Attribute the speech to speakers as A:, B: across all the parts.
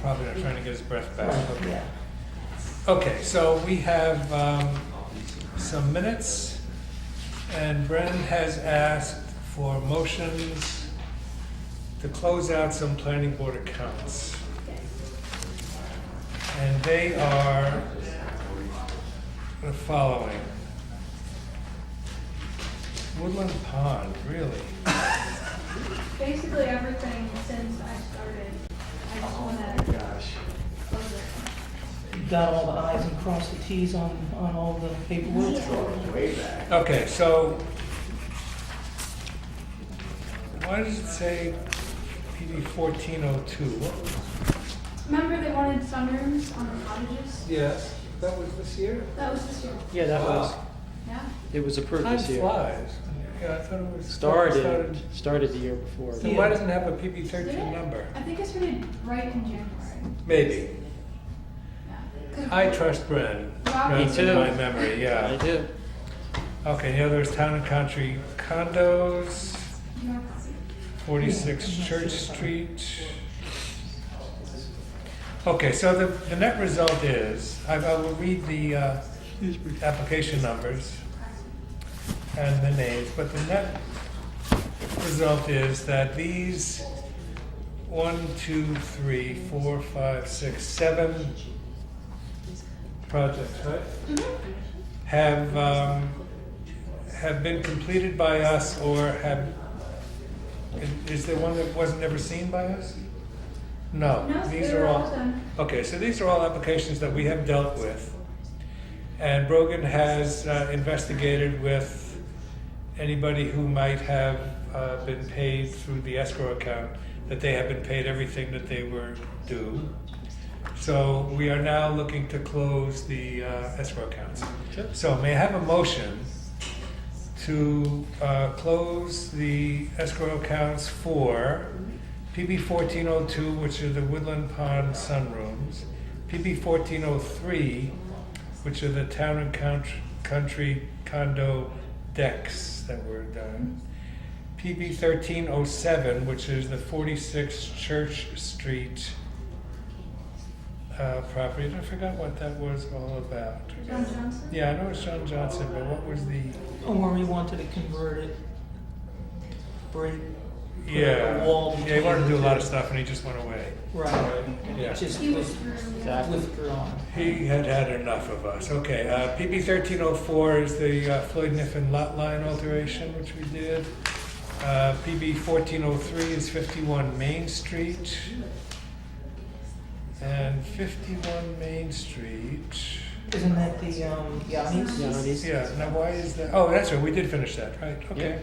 A: probably not trying to get his breath back.
B: Yeah.
A: Okay, so we have um, some minutes, and Bren has asked for motions to close out some planning board accounts. And they are the following. Woodland Pond, really?
C: Basically everything since I started, I just wanna. Oh, my gosh.
B: Got all the i's and crossed the t's on, on all the paperwork.
A: Okay, so why does it say PD fourteen oh two?
C: Remember they wanted sunrooms on the cottages?
A: Yes, that was this year?
C: That was this year,
D: Yeah, that was,
C: yeah?
D: it was approved
A: Time
D: this year.
A: flies. Yeah, I thought it was.
D: Started, started the year before.
A: So why
B: Yeah.
A: doesn't it have a PB
C: Did
A: thirteen
C: it?
A: number?
C: I think I started right in January,
A: Maybe.
C: yeah. 'Cause
A: I trust Bren.
C: Rob-
A: Runs
D: Me
A: in
D: too.
A: my memory,
D: I
A: yeah.
D: did.
A: Okay, the other is town and country condos,
C: you know, it's-
A: forty-six Church Street. Okay, so the, the net result is, I, I will read the, uh, application numbers and the names, but the net result is that these one, two, three, four, five, six, seven projects, right?
C: Mm-hmm.
A: Have, um, have been completed by us or have, is- is there one that wasn't ever seen by us? No,
C: No,
A: these
C: they
A: are
C: were
A: all.
C: all done.
A: Okay, so these are all applications that we have dealt with. And Brogan has uh, investigated with anybody who might have uh, been paid through the escrow account, that they have been paid everything that they were due. So we are now looking to close the uh, escrow accounts.
D: Sure.
A: So may I have a motion to uh, close the escrow accounts for PB fourteen oh two, which are the Woodland Pond sunrooms, PB fourteen oh three, which are the town and country, country condo decks that were done, PB thirteen oh seven, which is the forty-six Church Street uh, property, and I forgot what that was all about.
C: John Johnson?
A: Yeah, I know it's John Johnson, but what was the,
B: Or where we wanted to convert it, break,
A: yeah,
B: wall
A: yeah, he wanted to do a lot of
B: between-
A: stuff and he just went away.
B: right, and
A: Yeah.
B: it just
C: He was
B: was
C: through.
D: Exactly.
B: withdrawn.
A: He had had enough of us. Okay, uh, PB thirteen oh four is the uh, Floyd Niffen lot line alteration, which we did. Uh, PB fourteen oh three is fifty-one Main Street. And fifty-one Main Street,
B: Isn't that the, um, Yanni's?
D: You know, these-
A: yeah, now why is that, oh, that's right, we did finish that, right, okay.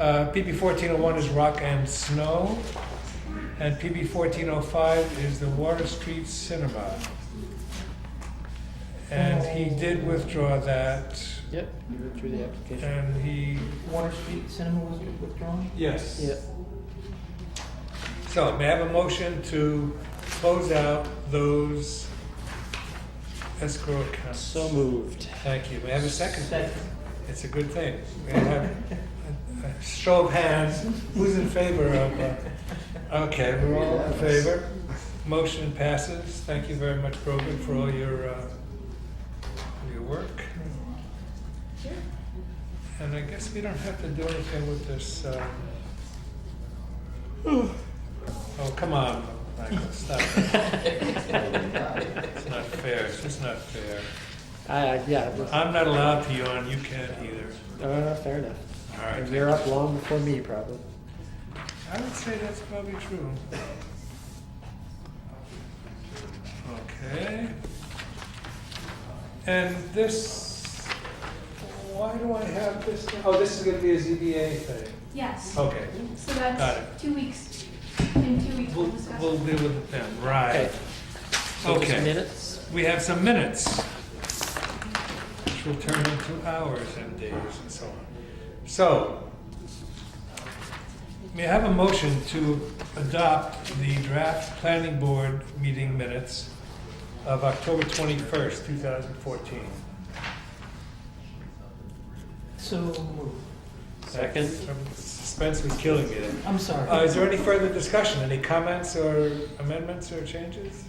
A: Uh, PB fourteen oh one is Rock and Snow. And PB fourteen oh five is the Water Street Cinema. And he did withdraw that,
D: Yep, you withdrew the application.
A: and he,
B: Water Street Cinema was withdrawn?
A: yes.
D: Yep,
A: So may I have a motion to close out those escrow accounts?
D: so moved.
A: Thank you. May I have a second?
B: Second.
A: It's a good thing. May I have a- a show of hands, who's in favor of, uh, okay, we're all in favor. Motion passes. Thank you very much, Brogan, for all your, uh, your work. And I guess we don't have to do anything with this, uh, oh, come on, Michael, stop. it. It's not fair, it's just not fair.
D: I, I, yeah, it was-
A: I'm not allowed to yawn, you can't either.
D: uh, fair enough.
A: All right.
D: And you're up long before me, probably.
A: I would say that's probably true. Okay. And this, why do I have this? Oh, this is gonna be a ZBA thing.
C: Yes,
A: Okay,
C: so
A: Oh, Got it.
C: that's two weeks, in two weeks we'll
A: we'll,
C: discuss.
A: we'll deal with it then, right.
D: Okay. So just
A: Okay.
D: minutes?
A: We have some minutes, which will turn into hours and days and so on. So, may I have a motion to adopt the draft planning board meeting minutes of October 21st, 2014?
B: So moved.
D: Second.
A: That's- Spence was killing me there.
B: I'm sorry.
A: Uh, is there any further discussion? Any comments or amendments or changes?